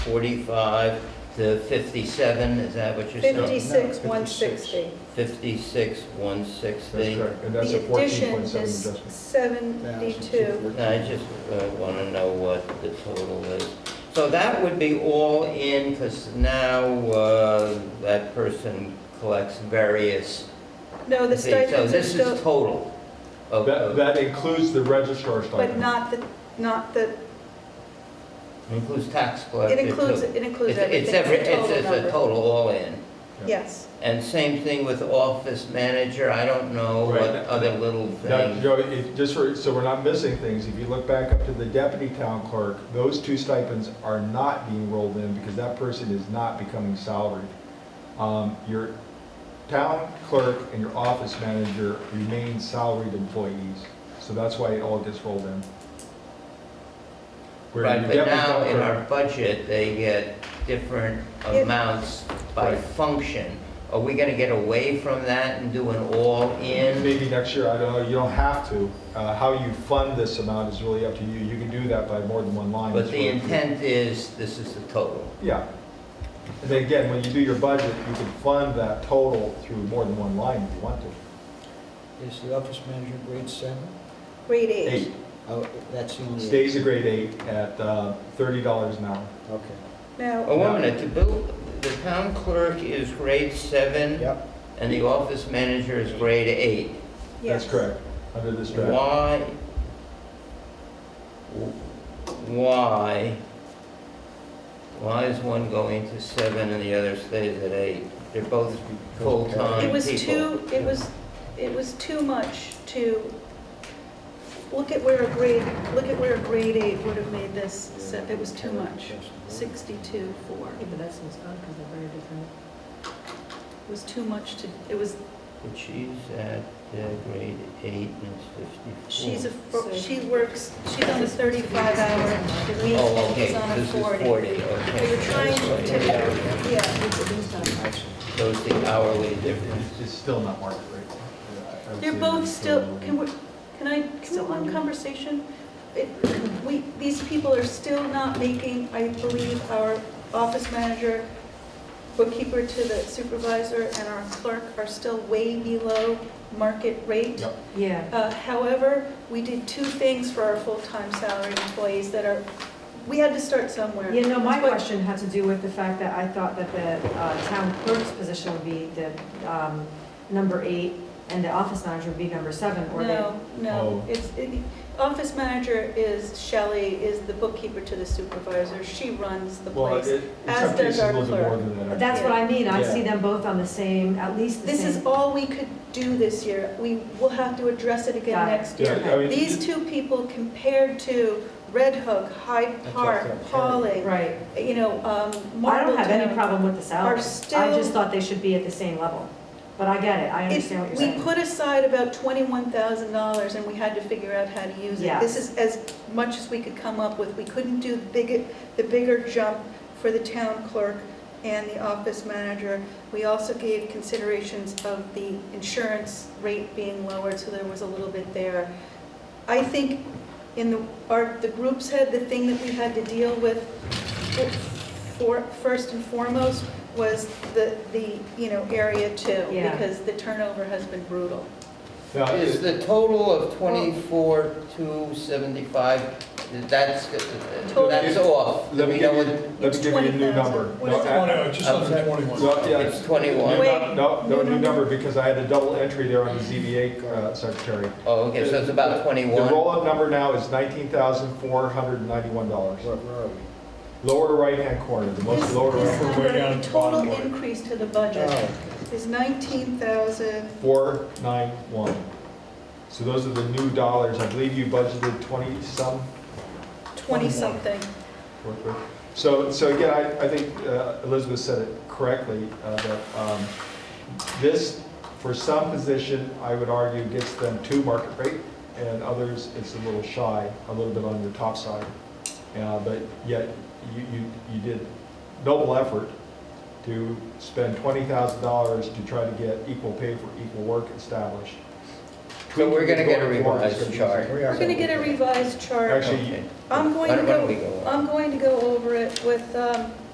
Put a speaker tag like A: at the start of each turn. A: 45 to 57, is that what you're saying?
B: Fifty-six,
C: No, no,
B: one
C: 56.
B: sixty.
A: 56,
C: That's
A: 160.
C: correct, and that's a
B: The addition
C: 14.7
B: is
C: adjustment.
B: seventy-two.
A: I just want to know what the total is. So that would be all in, because now uh, that person collects various
B: No, the
A: fees. So
B: stipends are
A: this is
B: still,
A: total. of-
C: That,
A: of-
C: that includes the registrar's
B: but
C: stipend.
B: not the, not the,
A: Includes tax collector
B: it
A: too.
B: includes, it includes
A: It's-
B: everything.
A: It's every,
B: the
A: it's
B: total
A: it's a
B: number.
A: total all in.
B: Yes.
A: And same thing with office manager, I don't know
C: Right.
A: what other little
C: Now,
A: things.
C: Joe, if, just for, so we're not missing things, if you look back up to the deputy town clerk, those two stipends are not being rolled in because that person is not becoming salaried. Um, your town clerk and your office manager remain salaried employees, so that's why it all gets rolled in. Where
A: Right,
C: your
A: but
C: deputy
A: now
C: town
A: in
C: clerk-
A: our budget, they get different
B: Yeah.
A: amounts by
C: Right.
A: function. Are we gonna get away from that and do an all-in?
C: Maybe next year, I don't know, you don't have to. Uh, How you fund this amount is really up to you. You can do that by more than one line.
A: But
C: It's
A: the
C: really-
A: intent is, this is the total.
C: Yeah. And then again, when you do your budget, you can fund that total through more than one line if you want to.
D: Is the office manager grade seven?
B: Grade
C: Eight,
B: eight.
D: Oh, that's the only.
C: stays a grade eight at uh, thirty dollars an hour.
D: Okay.
A: Oh,
B: Now,
A: wait a minute, the bill, the town clerk is grade seven,
D: Yep.
A: and the office manager is grade eight.
B: yes.
C: That's correct, under this draft.
A: Why, why, why is one going to seven and the other stays at eight? They're both full-time
B: It was
A: people.
B: too, it was, it was too much to, look at where a grade, look at where a grade eight would have made this, se- it was too much. Sixty-two, four,
E: Yeah, but that seems odd because they're very different.
B: it was too much to, it was,
A: But she's at uh, grade eight and it's
B: she's a,
A: 54.
B: fro- she works, she's on a thirty-five hour a week,
A: Oh,
B: and
A: okay,
B: he's on a
A: this is
B: forty.
A: 40, okay.
B: We were trying
A: That's
B: to-
A: right.
B: Yeah,
A: So it's the hourly
C: It-
A: difference.
C: It's it's still not market rate. I would
B: they're
C: say
B: both
C: it's
B: still, can we, can I, still
E: we-
B: on conversation? It- We, these people are still not making, I believe, our office manager, bookkeeper to the supervisor, and our clerk are still way below market rate.
C: Yep.
E: Yeah.
B: Uh, However, we did two things for our full-time salaried employees that are, we had to start somewhere.
E: Yeah, no, my
B: But-
E: question had to do with the fact that I thought that the uh, town clerk's position would be the um, number eight, and the office manager would be number seven, or they...
B: No, no,
C: Oh.
B: it's, it- office manager is Shelley, is the bookkeeper to the supervisor, she runs the
C: Well, it-
B: place.
C: in
B: as
C: some
B: does
C: cases, a
B: our
C: little bit more
B: clerk.
C: than that.
E: That's what I mean, I
C: Yeah.
E: see them both on the same, at least the
B: This is
E: same.
B: all we could do this year, we will have to address it again
E: Got it.
B: next
C: Yeah,
B: year.
C: I mean,
B: These two people compared to Red Hook, Hyde
D: That's
B: Park,
D: what I'm saying.
B: Pauling,
E: Right.
B: you know, um,
E: I don't have any
B: Marbletown.
E: problem with the salary.
B: Are
E: I just
B: still,
E: thought they should be at the same level. But I get it, I understand what
B: it-
E: you're
B: we
E: saying.
B: put aside about twenty-one thousand dollars and we had to figure out how to use it. This is as much as we could come up with. We couldn't do the big, the bigger jump for the town clerk and the office manager. We also gave considerations of the insurance rate being lowered, so there was a little bit there. I think in the, our, the group's head, the thing that we had to deal with for, first and foremost was the, the, you know, area two.
E: Yeah.
B: Because the turnover has been brutal.
C: Now,
A: Is
C: it-
A: the total of 24, 275, that's, uh,
B: Total.
A: that's off?
C: Let me
A: We
C: give
A: know
C: you,
A: what-
C: let me give you a new
B: 20,000.
C: number.
B: What
C: No,
B: is it?
C: I-
F: just under 21.
C: Well, yeah,
A: It's 21.
C: New
B: Wait.
C: num- No, no,
B: New
C: new number, because I had a double entry there on the ZBA uh, secretary.
A: Oh, okay, so it's about
C: The
A: 21.
C: roll-up number now is nineteen thousand four hundred and ninety-one dollars.
D: Where where are we?
C: Lower right-hand corner, the most
B: This-
C: lower
B: this
C: right,
B: number,
F: Way down at
B: the
F: the bottom line.
B: Total increase to the budget
D: Oh,
B: is nineteen thousand,
C: four nine one. So those are the new dollars. I believe you budgeted twenty-some.
B: twenty-something.
C: So, so again, I, I think uh, Elizabeth said it correctly, uh, that um, this, for some position, I would argue gets them to market rate, and others, it's a little shy, a little bit on the top side. Uh, But yet, you, you, you did noble effort to spend $20,000 to try to get equal pay for equal work established.
A: So we're gonna get a
C: Tweaking the going forward is
A: revised
C: gonna be-
A: chart.
D: We
B: We're
D: are.
B: gonna get a revised chart.
C: Actually,
B: I'm going
A: Why
B: to
A: don't- why don't
B: go,
A: we go on?
B: I'm going to go over it with, um,